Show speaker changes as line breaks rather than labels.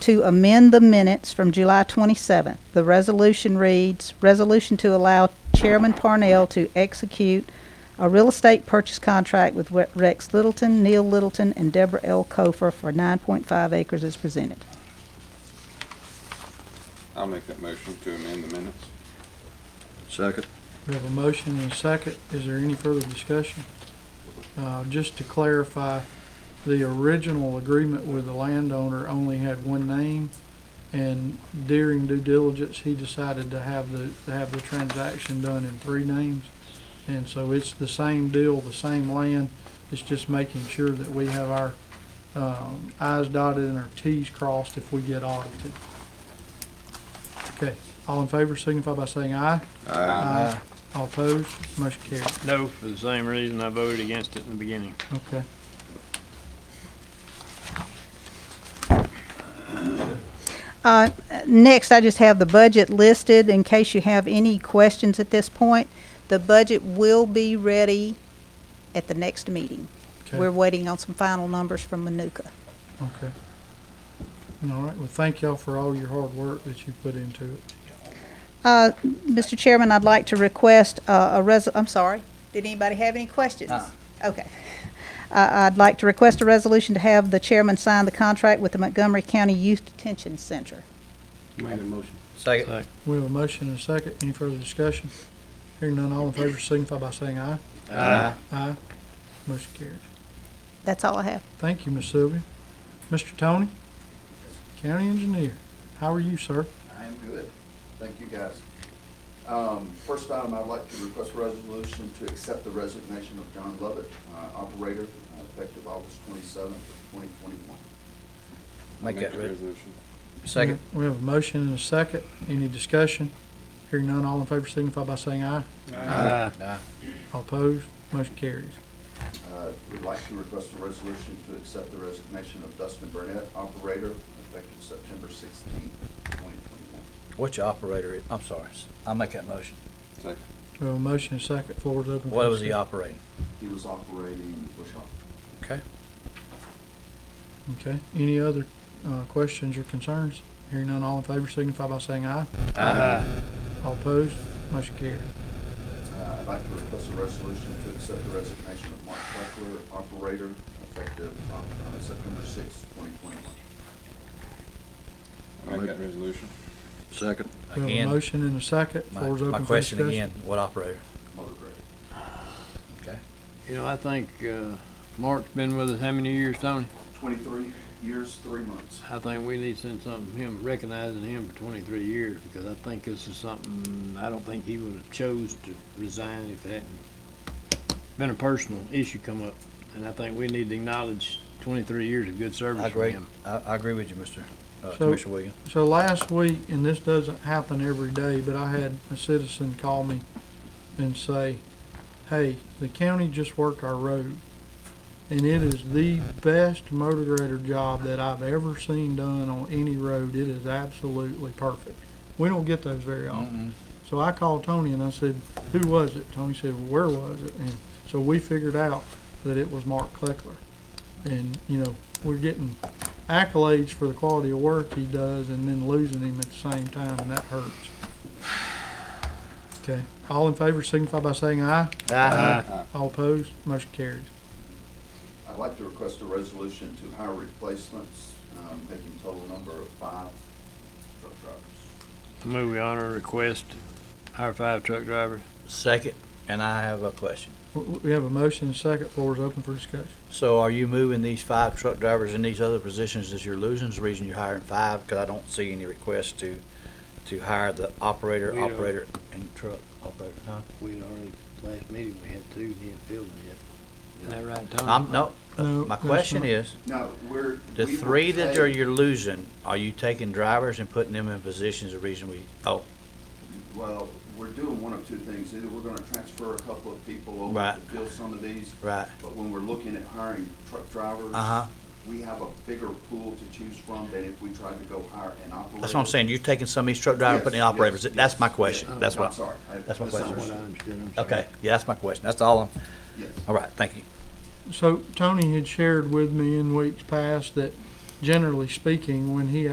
to amend the minutes from July 27th. The resolution reads, "Resolution to allow Chairman Parnell to execute a real estate purchase contract with Re- Rex Littleton, Neil Littleton, and Deborah L. Kofer for 9.5 acres as presented."
I'll make that motion to amend the minutes.
Second.
We have a motion and a second. Is there any further discussion? Uh, Just to clarify, the original agreement with the landowner only had one name, and during due diligence, he decided to have the, to have the transaction done in three names. And so it's the same deal, the same land. It's just making sure that we have our um, i's dotted and our t's crossed if we get audited. Okay, all in favor signify by saying aye. Aye. All opposed, motion carried.
No, for the same reason I voted against it in the beginning.
Okay.
Uh, Next, I just have the budget listed in case you have any questions at this point. The budget will be ready at the next meeting.
okay,
We're waiting on some final numbers from Manuka.
Okay. All right, well, thank y'all for all your hard work that you put into it.
Uh, Mr. Chairman, I'd like to request uh, a res, I'm sorry, did anybody have any questions? Okay. I- I'd like to request a resolution to have the chairman sign the contract with the Montgomery County Youth Detention Center.
Make a motion.
Second.
We have a motion and a second. Any further discussion? Hearing none, all in favor signify by saying aye.
Aye.
Aye. Motion carried.
That's all I have.
Thank you, Ms. Sylvia. Mr. Tony, County Engineer, how are you, sir?
I am good. Thank you, guys. Um, First item, I'd like to request a resolution to accept the resignation of John Lovett, uh, operator, uh, effective August twenty-seventh, twenty twenty-one.
Make that
the
re-
resolution.
Second.
We have a motion and a second. Any discussion? Hearing none, all in favor signify by saying aye.
Aye.
All opposed, motion carries.
Uh, We'd like to request a resolution to accept the resignation of Dustin Burnett, operator, effective September sixteenth, twenty twenty-one.
What's your operator, is- I'm sorry, I'll make that motion.
Second.
We have a motion and a second. Floor is open. for
What was the
discussion.
operating?
He was operating Bushhawk.
Okay.
Okay. Any other uh, questions or concerns? Hearing none, all in favor signify by saying aye.
Aye.
All opposed, motion carried.
Uh, I'd like to request a resolution to accept the resignation of Mark Fleckler, operator, effective uh, September sixth, twenty twenty-one.
I'll make that resolution.
Second.
We have a
Again,
motion and a second.
my,
Floor is open
my
for
question
discussion.
again, what operator?
motor grader.
Okay.
You know, I think, uh, Mark's been with us how many years, Tony?
Twenty-three years, three months.
I think we need to send something, him, recognizing him for twenty-three years, because I think this is something, I don't think he would have chose to resign if it hadn't been a personal issue come up. And I think we need to acknowledge twenty-three years of good
I
service from
agree,
him.
I, I agree with you, Mr. uh,
So-
Commissioner Williams.
So last week, and this doesn't happen every day, but I had a citizen call me and say, hey, the county just worked our road. And it is the best motor grader job that I've ever seen done on any road. It is absolutely perfect. We don't get those very often. So I called Tony and I said, who was it? Tony said, well, where was it? And so we figured out that it was Mark Kleckler. And, you know, we're getting accolades for the quality of work he does and then losing him at the same time, and that hurts. Okay, all in favor signify by saying aye.
Uh-huh. Uh,
Aye.
All opposed, motion carries.
I'd like to request a resolution to hire replacements, um, making total number of five truck drivers.
Move we honor request, our five truck driver.
Second, and I have a question.
W- w- We have a motion and second, floor is open for discussion.
So are you moving these five truck drivers in these other positions as you're losing? Is the reason you're hiring five? Because I don't see any requests to, to hire the operator,
We don't.
operator, and truck operator, huh?
We had already, last meeting, we had two, he hadn't filled them yet. Isn't that right, Tony?
I'm, no,
No,
Uh, my
that's
question
not-
is,
No, we're.
The
we will
three that are
pay-
you're losing, are you taking drivers and putting them in positions the reason we, oh,
Well, we're doing one of two things. Either we're gonna transfer a couple of people over
Right.
to fill some of these.
right,
But when we're looking at hiring truck drivers.
uh-huh.
We have a bigger pool to choose from than if we tried to go hire an operator.
That's what I'm saying, you're taking some of these truck drivers, and putting in operators,
Yes, yes,
that's my
yes.
question, that's
I'm
what,
sorry. I-
that's my
That's not what I
question.
understood, I'm sorry.
okay, yeah, that's my question, that's all, I'm-
Yes.
all right, thank you.
So Tony had shared with me in weeks past that generally speaking, when he